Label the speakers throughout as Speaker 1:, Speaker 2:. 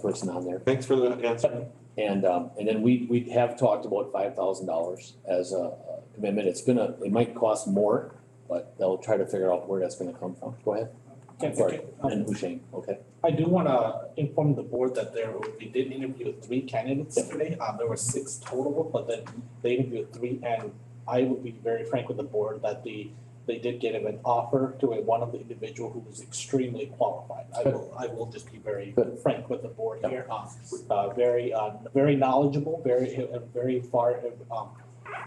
Speaker 1: person on there.
Speaker 2: Thanks for the answer.
Speaker 1: And, um, and then we, we have talked about five thousand dollars as a a commitment. It's gonna, it might cost more, but they'll try to figure out where that's gonna come from. Go ahead.
Speaker 3: Can-
Speaker 1: Sorry.
Speaker 3: can-
Speaker 1: And Husheng, okay?
Speaker 3: I do wanna inform the board that there, we did interview three candidates today, uh, there were six total, but then they interviewed three, and I would be very frank with the board that the, they did get him an offer to a, one of the individual who was extremely qualified. I will, I will just be very
Speaker 1: Good.
Speaker 3: frank with the board here, uh, uh, very, uh, very knowledgeable, very, uh, very far, um,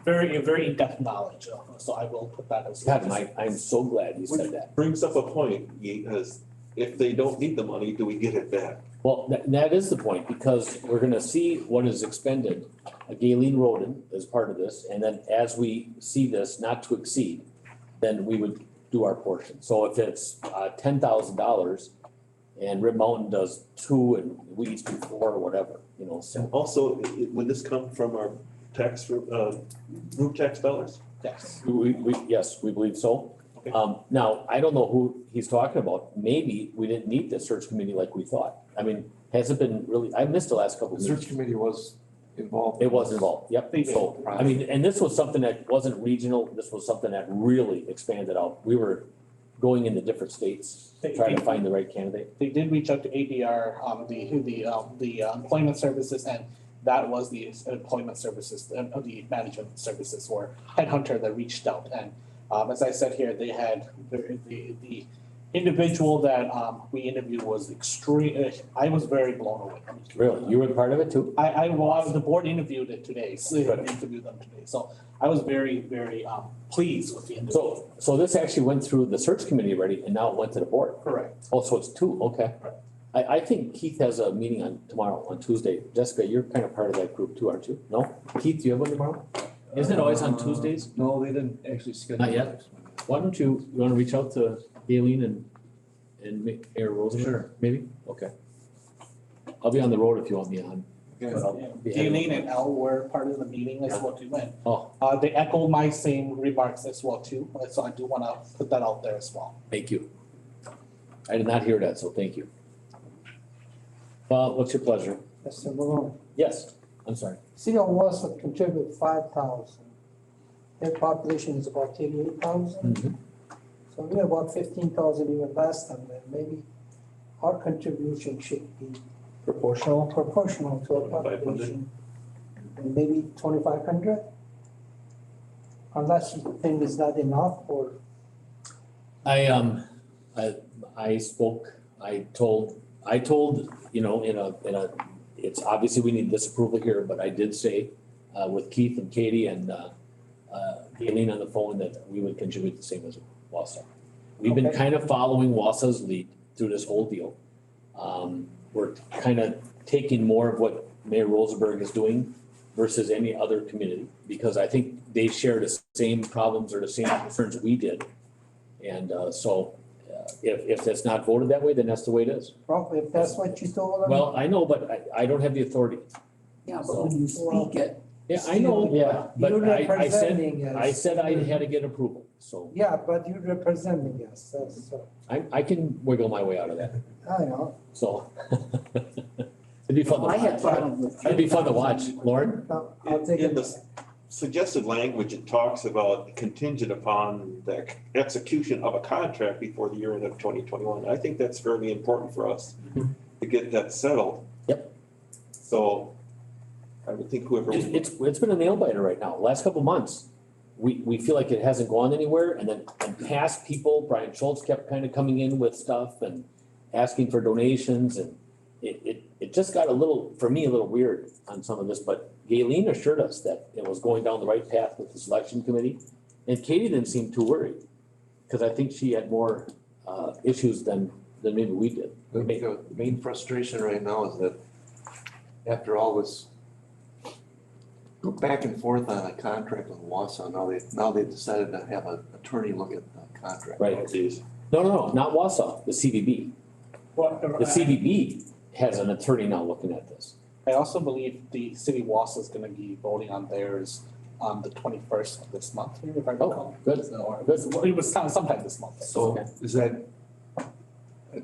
Speaker 3: very, very in-depth knowledge, uh, so I will put that as.
Speaker 1: God, Mike, I'm so glad you said that.
Speaker 2: Brings up a point, because if they don't need the money, do we get it back?
Speaker 1: Well, that, that is the point, because we're gonna see what is expended. Uh, Galen Roden is part of this, and then as we see this not to exceed, then we would do our portion. So if it's, uh, ten thousand dollars and Rib Mountain does two and we each do four or whatever, you know, so.
Speaker 2: And also, i- i- would this come from our tax, uh, group tax dollars?
Speaker 3: Yes,
Speaker 1: We, we, yes, we believe so.
Speaker 2: Okay.
Speaker 1: Um, now, I don't know who he's talking about. Maybe we didn't need the search committee like we thought. I mean, has it been really, I missed the last couple
Speaker 4: The
Speaker 1: of
Speaker 4: search
Speaker 1: meetings.
Speaker 4: committee was involved.
Speaker 1: It was involved, yep.
Speaker 3: They did.
Speaker 1: So, I mean, and this was something that wasn't regional. This was something that really expanded out. We were going into different states,
Speaker 3: They-
Speaker 1: trying to
Speaker 3: they-
Speaker 1: find the right candidate.
Speaker 3: they did reach out to ADR, um, the, who the, um, the uh, employment services and that was the employment services, uh, uh, the management services or headhunter that reached out and um, as I said here, they had, the, the, the individual that, um, we interviewed was extreme, uh, I was very blown away.
Speaker 1: Really, you were part of it too?
Speaker 3: I, I, well, I was- the board interviewed it today, so interviewed them today, so I was very, very, um, pleased with the individual.
Speaker 1: So, so this actually went through the search committee already and now it went to the board.
Speaker 3: Correct.
Speaker 1: Oh, so it's two, okay. I, I think Keith has a meeting on tomorrow, on Tuesday. Jessica, you're kind of part of that group too, aren't you? No? Keith, do you have one tomorrow? Isn't it always on Tuesdays?
Speaker 4: No, they didn't actually schedule.
Speaker 1: Not yet.
Speaker 4: it.
Speaker 1: Why don't you, you wanna reach out to Aileen and, and Ma- Mayor Rosen? Sure. Maybe? Okay. I'll be on the road if you want me on.
Speaker 4: Okay.
Speaker 1: but I'll be-
Speaker 3: Galen and Al were part of the meeting as well too, and
Speaker 1: Oh,
Speaker 3: Uh, they echo my same remarks as well too, uh, so I do wanna put that out there as well.
Speaker 1: thank you. I did not hear that, so thank you. Uh, what's your pleasure?
Speaker 5: Mr. Malone,
Speaker 1: Yes, I'm sorry.
Speaker 5: CO Wausau contributed five thousand. Their population is about eighty-eight
Speaker 2: Hmm.
Speaker 5: thousand, so we're about fifteen thousand even less than them. Maybe our contribution should be
Speaker 3: Proportional?
Speaker 5: proportional to our
Speaker 2: 2,500.
Speaker 5: population. And maybe twenty-five hundred? Unless you think it's not enough or
Speaker 1: I um, I I spoke, I told, I told, you know, in a, in a, it's obviously we need disapproval here, but I did say uh with Keith and Katie and uh uh Aileen on the phone that we would contribute the same as Wausau. We've been
Speaker 5: Okay.
Speaker 1: kind of following Wausau's lead through this whole deal. Um, we're kind of taking more of what Mayor Rosenberg is doing versus any other community, because I think they share the same problems or the same concerns we did. And uh, so uh, if, if that's not voted that way, then that's the way it is.
Speaker 5: probably if that's what you told them.
Speaker 1: Well, I know, but I, I don't have the authority.
Speaker 6: Yeah, but when you speak it,
Speaker 1: Yeah, I know,
Speaker 5: Yeah.
Speaker 1: but
Speaker 5: You're
Speaker 1: I, I said,
Speaker 5: representing us.
Speaker 1: I said I had to get approval, so
Speaker 5: Yeah, but you're representing us, that's, uh,
Speaker 1: I, I can wiggle my way out of that,
Speaker 5: I know,
Speaker 1: so. It'd be fun to
Speaker 6: I had
Speaker 1: watch.
Speaker 6: problems with.
Speaker 1: It'd be fun to watch, Lauren.
Speaker 5: Now, I'll take
Speaker 2: In
Speaker 5: it.
Speaker 2: the s- Suggested language, it talks about contingent upon the c- execution of a contract before the year end of twenty twenty-one. I think that's fairly important for us to get that settled.
Speaker 1: Yep.
Speaker 2: So I would think whoever.
Speaker 1: It's, it's, it's been a nail biter right now, last couple months. We, we feel like it hasn't gone anywhere and then, and past people, Brian Schultz kept kind of coming in with stuff and asking for donations and it, it, it just got a little, for me, a little weird on some of this, but Galen assured us that it was going down the right path with the selection committee. And Katie didn't seem too worried, cause I think she had more, uh, issues than, than maybe we did.
Speaker 4: The, the main frustration right now is that after all this go back and forth on a contract with Wausau, now they, now they decided to have an attorney look at the contract.
Speaker 1: Right.
Speaker 2: Oh, geez.
Speaker 1: No, no, no, not Wausau, the CVB. The CVB has an attorney now looking at this.
Speaker 3: I also believe the city was is gonna be voting on theirs on the twenty-first of this month, if I
Speaker 1: Oh,
Speaker 3: recall.
Speaker 1: good.
Speaker 3: So, or it was, well, it was some- sometime this month.
Speaker 4: So is that,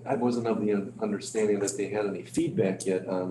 Speaker 4: I wasn't of the understanding that they had any feedback yet on